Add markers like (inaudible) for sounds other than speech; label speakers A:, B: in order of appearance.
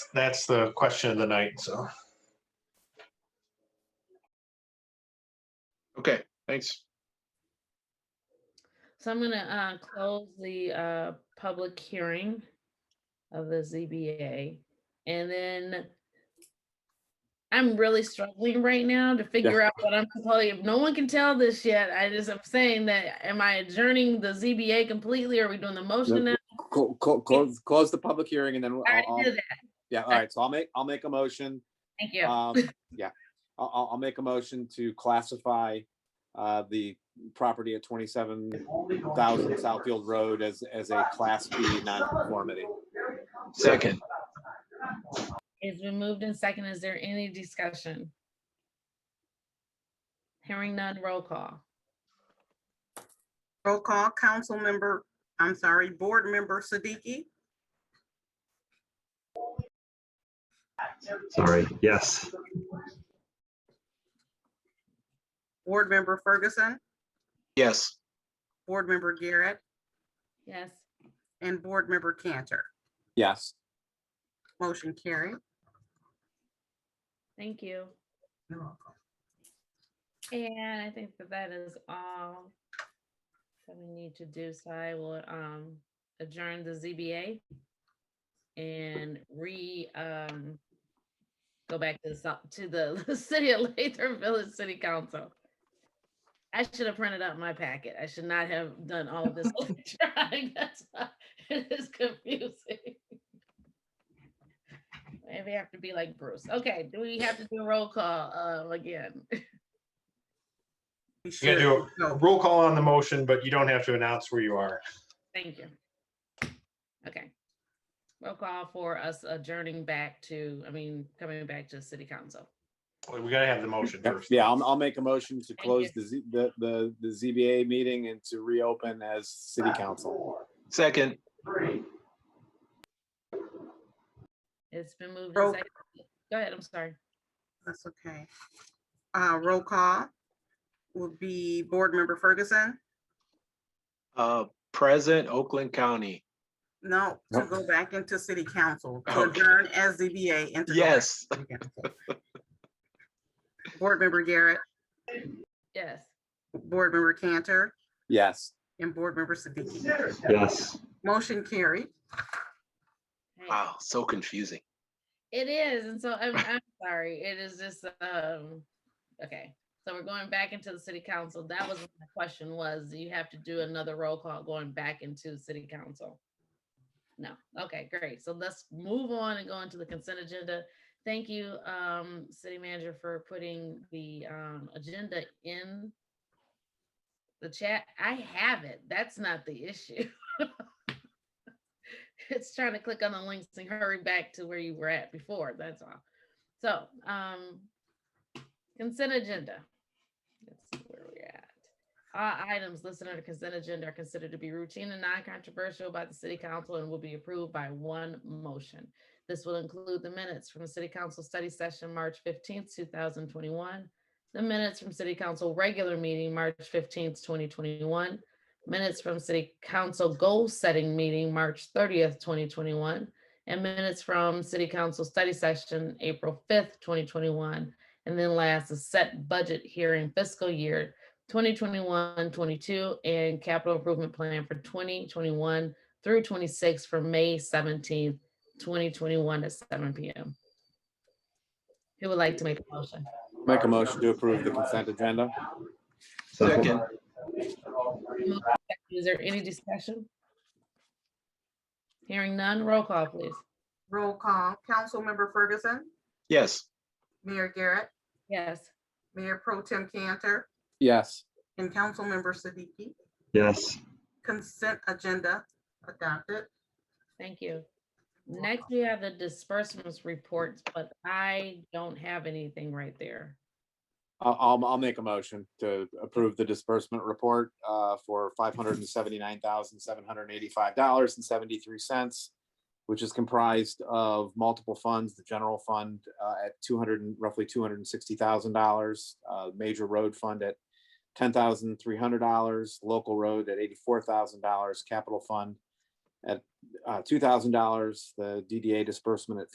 A: That's the question of the night, so.
B: Okay, thanks.
C: So I'm gonna uh, close the uh, public hearing of the ZBA. And then I'm really struggling right now to figure out what I'm proposing. If No one can tell this yet. I just am saying that, am I adjourning the ZBA completely? Are we doing the motion now?
D: Close, close, close the public hearing and then, I'll-
C: I already
D: I'll-
C: did that.
D: yeah, all right, so I'll make, I'll make a motion.
C: Thank you. (laughs)
D: Um, yeah, I'll, I'll, I'll make a motion to classify, uh, the property at twenty-seven thousand Southfield Road as, as a Class B nonconformity.
B: Second.
C: It's been moved in second. Is there any discussion? Hearing none, roll call.
E: Roll call, council member, I'm sorry, board member Siddiqui,
F: Sorry, yes.
E: board member Ferguson,
B: Yes.
E: board member Garrett,
C: Yes.
E: and board member Cantor.
D: Yes,
E: Motion carried.
C: Thank you. And I think that that is all that we need to do, so I will um adjourn the ZBA and re um go back to the, so- to the (laughs) city of Lathir Village City Council. I should have printed out my packet. I should not have done all of this (laughs) electronic. That's why (laughs) It is confusing. Maybe I have to be like Bruce. Okay, do we have to do a roll call um again?
E: We
A: You
E: should Oh,
A: gotta do a
E: go.
A: roll call on the motion, but you don't have to announce where you are.
C: Thank you. Okay. Roll call for us adjourning back to, I mean, coming back to city council.
A: We gotta have the motion
D: Yeah,
A: first.
D: yeah, I'll, I'll make a motion to
C: you.
D: close the, Z- the, the, the ZBA meeting and to reopen as city council.
B: Second.
C: It's been moved. and
E: Roll-
C: seconded. Go ahead, I'm sorry.
E: That's okay. Uh, roll call would be board member Ferguson.
B: Uh, present Oakland County.
E: No, to
D: Nope.
E: go back into city council, to
B: Okay.
E: adjourn as ZBA. and to go back
B: Yes. (laughs)
E: to city council. (laughs) Board member Garrett,
C: Yes.
E: board member Cantor,
D: Yes,
E: and board member Siddiqui.
F: Yes.
E: Motion carried.
C: Hey,
B: Wow, so confusing.
C: It is, and so I'm, I'm sorry, it is just, um, okay. So we're going back into the city council. That was my question was, do you have to do another roll call going back into city council? No, okay, great. So let's move on and go into the consent agenda. Thank you, um, city manager for putting the, um, agenda in the chat. I have it. That's not the issue. (laughs) It's trying to click on the links and hurry back to where you were at before, that's all. So, um, consent agenda. That's where we're at. All items listed under consent agenda are considered to be routine and non-controversial by the city council and will be approved by one motion. This will include the minutes from the city council study session, March fifteenth, two thousand twenty-one, the minutes from city council regular meeting, March fifteenth, twenty twenty-one, minutes from city council goal setting meeting, March thirtieth, twenty twenty-one, and minutes from city council study session, April fifth, twenty twenty-one. And then last is set budget hearing fiscal year 2021, 22, and capital improvement plan for twenty twenty-one through twenty-six for May seventeenth, twenty twenty-one at seven P M. Who would like to make a motion?
D: make a motion to approve the consent agenda.
B: Second.
C: Is there any discussion? Hearing none, roll call please.
E: Roll call, council member Ferguson,
B: Yes.
E: Mayor Garrett,
C: Yes.
E: Mayor Pro Tem Cantor,
D: Yes,
E: and council member Siddiqui.
F: Yes.
E: Consent agenda adopted.
C: Thank you. Next, we have the disbursements reports, but I don't have anything right there.
D: I'll, I'll, I'll make a motion to approve the disbursement report, uh, for five hundred and seventy-nine thousand, seven hundred and eighty-five dollars and seventy-three cents, which is comprised of multiple funds, the general fund, uh, at two hundred and roughly two hundred and sixty thousand dollars, uh, major road fund at ten thousand, three hundred dollars, local road at eighty-four thousand dollars, capital fund at, uh, two thousand dollars, the DDA disbursement at